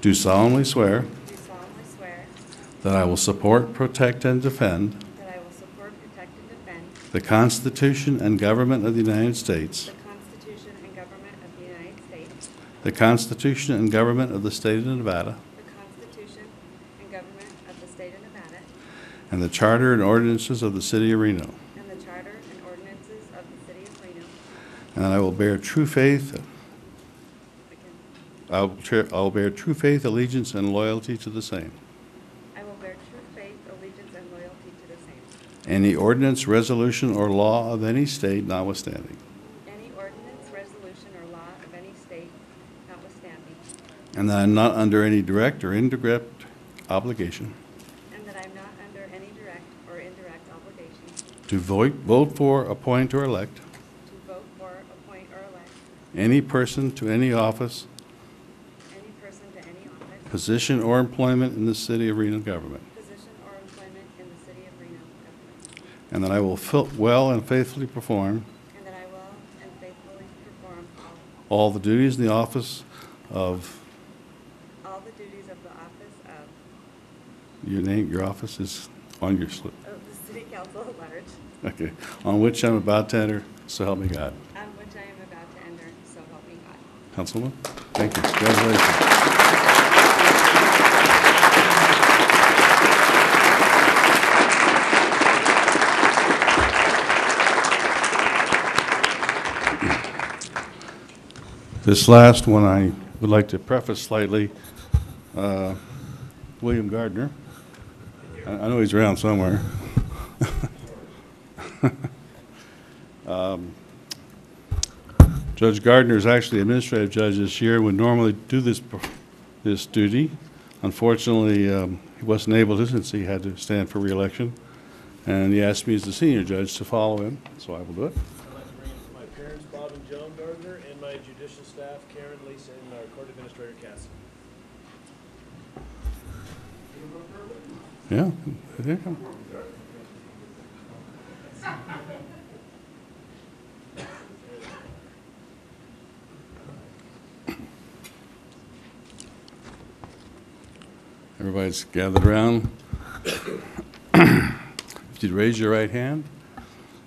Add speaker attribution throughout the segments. Speaker 1: do solemnly swear
Speaker 2: do solemnly swear
Speaker 1: that I will support, protect, and defend
Speaker 2: that I will support, protect, and defend
Speaker 1: the Constitution and government of the United States,
Speaker 2: the Constitution and government of the United States,
Speaker 1: the Constitution and government of the state of Nevada,
Speaker 2: the Constitution and government of the state of Nevada,
Speaker 1: and the charter and ordinances of the city of Reno,
Speaker 2: and the charter and ordinances of the city of Reno.
Speaker 1: and that I will bear true faith,
Speaker 2: I can-
Speaker 1: I will tre- I will bear true faith, allegiance, and loyalty to the same.
Speaker 2: I will bear true faith, allegiance, and loyalty to the same.
Speaker 1: Any ordinance, resolution, or law of any state notwithstanding.
Speaker 2: Any ordinance, resolution, or law of any state notwithstanding,
Speaker 1: And that I am not under any direct or indirect obligation
Speaker 2: and that I am not under any direct or indirect obligation
Speaker 1: to vote, vote for, appoint, or elect
Speaker 2: to vote for, appoint, or elect
Speaker 1: any person to any office,
Speaker 2: any person to any office,
Speaker 1: position, or employment in the city of Reno government.
Speaker 2: position, or employment in the city of Reno government,
Speaker 1: And that I will fil- well and faithfully perform
Speaker 2: and that I will and faithfully perform all-
Speaker 1: all the duties in the office of,
Speaker 2: all the duties of the office of,
Speaker 1: your name, your office is on your slip,
Speaker 2: of the city council at large,
Speaker 1: okay, on which I'm about to enter, so help me God.
Speaker 2: on which I am about to enter, so help me God.
Speaker 1: Councilman, thank you, congratulations. This last one, I would like to preface slightly. Uh, William Gardner, I I know he's around somewhere. Um, Judge Gardner is actually administrative judge this year, would normally do this, this duty. Unfortunately, um, he wasn't able to since he had to stand for reelection. And he asked me as the senior judge to follow him, so I will do it.
Speaker 3: I'd like to bring in my parents, Bob and Joan Gardner, and my judicial staff, Karen, Lisa, and our court administrator, Cassie.
Speaker 1: Yeah. there you go. Everybody's gathered around. If you'd raise your right hand,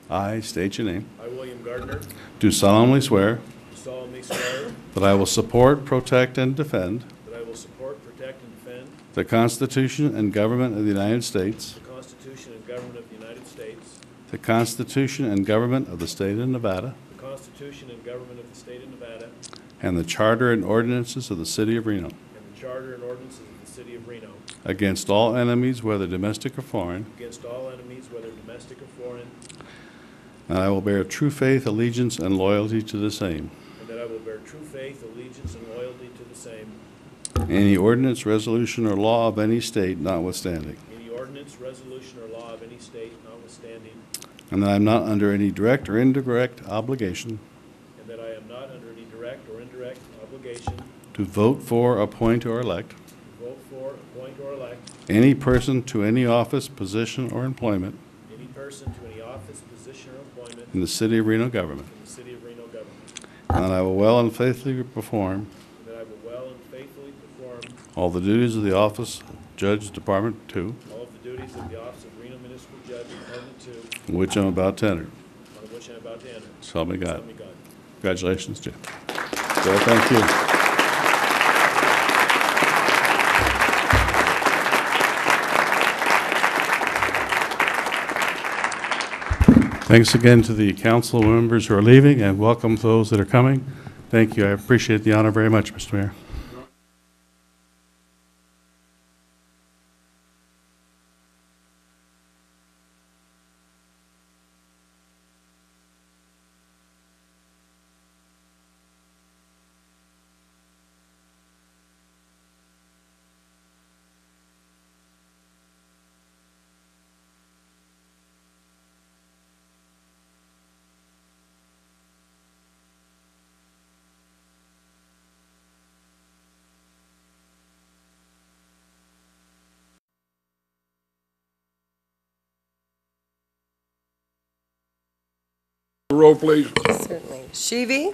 Speaker 1: I state your name.
Speaker 3: I, William Gardner,
Speaker 1: Do solemnly swear
Speaker 3: do solemnly swear
Speaker 1: that I will support, protect, and defend
Speaker 3: that I will support, protect, and defend
Speaker 1: the Constitution and government of the United States,
Speaker 3: the Constitution and government of the United States,
Speaker 1: the Constitution and government of the state of Nevada,
Speaker 3: the Constitution and government of the state of Nevada,
Speaker 1: And the charter and ordinances of the city of Reno,
Speaker 3: and the charter and ordinances of the city of Reno,
Speaker 1: against all enemies, whether domestic or foreign,
Speaker 3: against all enemies, whether domestic or foreign,
Speaker 1: and I will bear true faith, allegiance, and loyalty to the same.
Speaker 3: and that I will bear true faith, allegiance, and loyalty to the same,
Speaker 1: Any ordinance, resolution, or law of any state notwithstanding.
Speaker 3: any ordinance, resolution, or law of any state notwithstanding,
Speaker 1: And that I am not under any direct or indirect obligation
Speaker 3: And that I am not under any direct or indirect obligation to
Speaker 1: to vote for, appoint, or elect
Speaker 3: vote for, appoint, or elect
Speaker 1: any person to any office, position, or employment
Speaker 3: any person to any office, position, or employment
Speaker 1: in the city of Reno government.
Speaker 3: in the city of Reno government.
Speaker 1: And that I will well and faithfully perform
Speaker 3: And that I will well and faithfully perform
Speaker 1: all the duties of the office of Judge Department Two,
Speaker 3: all of the duties of the office of Reno Municipal Judge, Department Two,
Speaker 1: in which I'm about to enter.
Speaker 3: on which I am about to enter.
Speaker 1: So help me God.
Speaker 3: Help me God.
Speaker 1: Congratulations, Jim. So thank you. Thanks again to the council members who are leaving, and welcome to those that are coming. Thank you. I appreciate the honor very much, Mr. Mayor.
Speaker 4: Roll, please.
Speaker 5: Certainly. Shivi?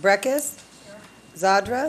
Speaker 5: Breckus? Zadra?